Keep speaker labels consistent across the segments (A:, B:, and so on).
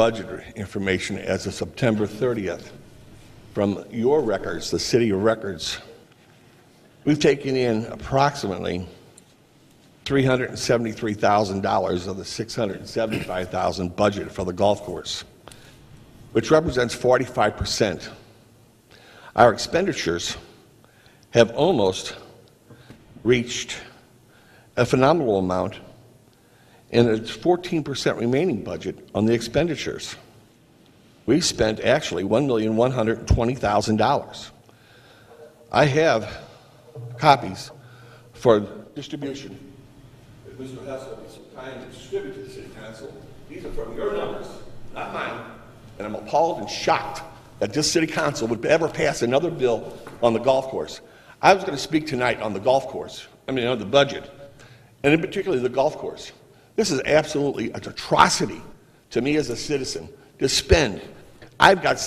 A: budget information as of September 30th from your records, the city records. We've taken in approximately $373,000 of the $675,000 budget for the golf course, which represents 45%. Our expenditures have almost reached a phenomenal amount, and it's 14% remaining budget on the expenditures. We spent actually $1,120,000. I have copies for distribution. If Mr. Hess will be so kind to distribute to the city council, these are from your numbers, not mine. And I'm appalled and shocked that this city council would ever pass another bill on the golf course. I was going to speak tonight on the golf course, I mean, on the budget, and in particular, the golf course. This is absolutely an atrocity to me as a citizen to spend. I've got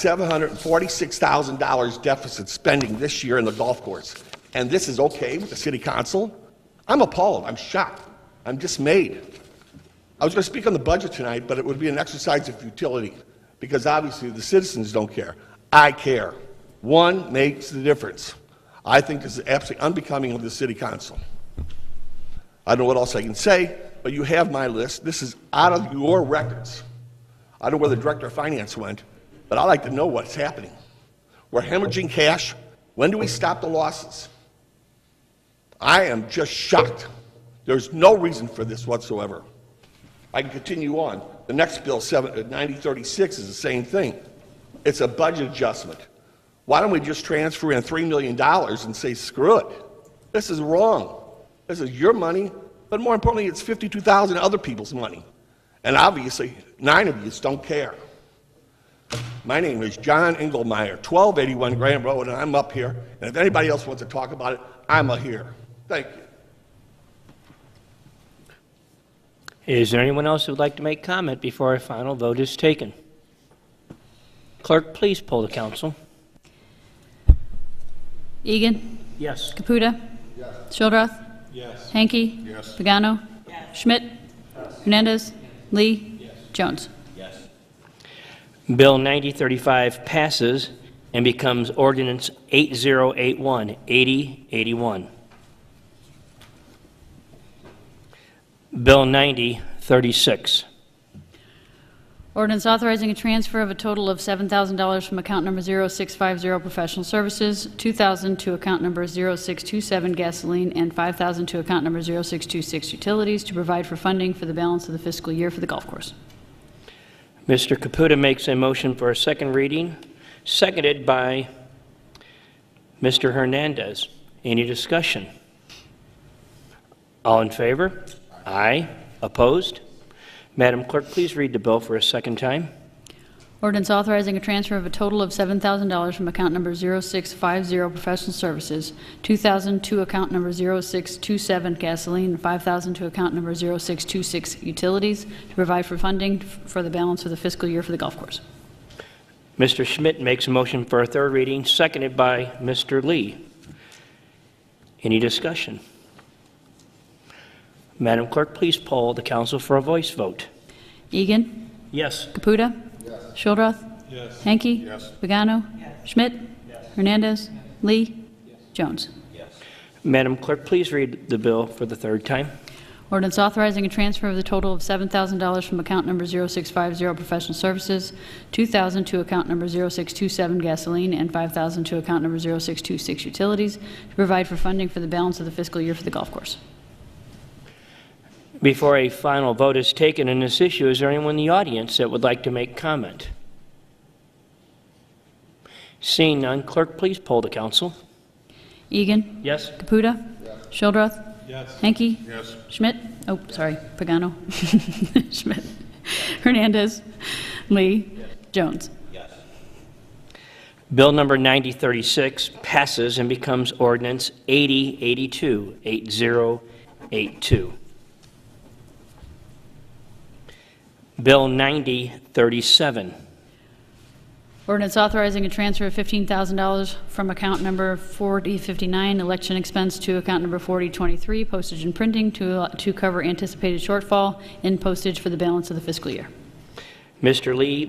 A: $746,000 deficit spending this year in the golf course, and this is okay with the city council? I'm appalled, I'm shocked, I'm dismayed. I was going to speak on the budget tonight, but it would be an exercise of futility, because obviously the citizens don't care. I care. One makes the difference. I think this is absolutely unbecoming of the city council. I don't know what else I can say, but you have my list. This is out of your records. I don't know where the director of finance went, but I'd like to know what's happening. We're hemorrhaging cash. When do we stop the losses? I am just shocked. There's no reason for this whatsoever. I can continue on. The next bill, seven- uh, 9036, is the same thing. It's a budget adjustment. Why don't we just transfer in $3 million and say, screw it? This is wrong. This is your money, but more importantly, it's 52,000 other people's money. And obviously, nine of you don't care. My name is John Engelmeyer, 1281 Graham Road, and I'm up here. And if anybody else wants to talk about it, I'm a here. Thank you.
B: Is there anyone else who would like to make comment before our final vote is taken? Clerk, please poll the council.
C: Egan.
B: Yes.
C: Caputa. Yes. Shildroth. Yes. Hanky. Yes. Pagano. Yes. Schmidt. Hernandez. Lee. Jones.
B: Bill 9035 passes and becomes ordinance 8081, 8081. Bill 9036.
C: Ordinance authorizing a transfer of a total of $7,000 from account number 0650 Professional Services, 2,000 to account number 0627 Gasoline, and 5,000 to account number 0626 Utilities to provide for funding for the balance of the fiscal year for the golf course.
B: Mr. Caputa makes a motion for a second reading, seconded by Mr. Hernandez. Any discussion? All in favor? Aye. Opposed? Madam Clerk, please read the bill for a second time.
C: Ordinance authorizing a transfer of a total of $7,000 from account number 0650 Professional Services, 2,000 to account number 0627 Gasoline, and 5,000 to account number 0626 Utilities to provide for funding f- for the balance of the fiscal year for the golf course.
B: Mr. Schmidt makes a motion for a third reading, seconded by Mr. Lee. Any discussion? Madam Clerk, please poll the council for a voice vote.
C: Egan.
B: Yes.
C: Caputa. Yes. Shildroth. Yes. Hanky. Yes. Pagano. Schmidt. Hernandez. Lee. Jones.
B: Madam Clerk, please read the bill for the third time.
C: Ordinance authorizing a transfer of the total of $7,000 from account number 0650 Professional Services, 2,000 to account number 0627 Gasoline, and 5,000 to account number 0626 Utilities to provide for funding for the balance of the fiscal year for the golf course.
B: Before a final vote is taken on this issue, is there anyone in the audience that would like to make comment? Seeing none, clerk, please poll the council.
C: Egan.
B: Yes?
C: Caputa. Shildroth. Yes. Hanky. Yes. Schmidt. Oh, sorry, Pagano. Schmidt. Hernandez. Lee. Jones.
B: Bill number 9036 passes and becomes ordinance 8082, 8082. Bill 9037.
C: Ordinance authorizing a transfer of $15,000 from account number 4059, election expense, to account number 4023, postage and printing, to to cover anticipated shortfall in postage for the balance of the fiscal year.
B: Mr. Lee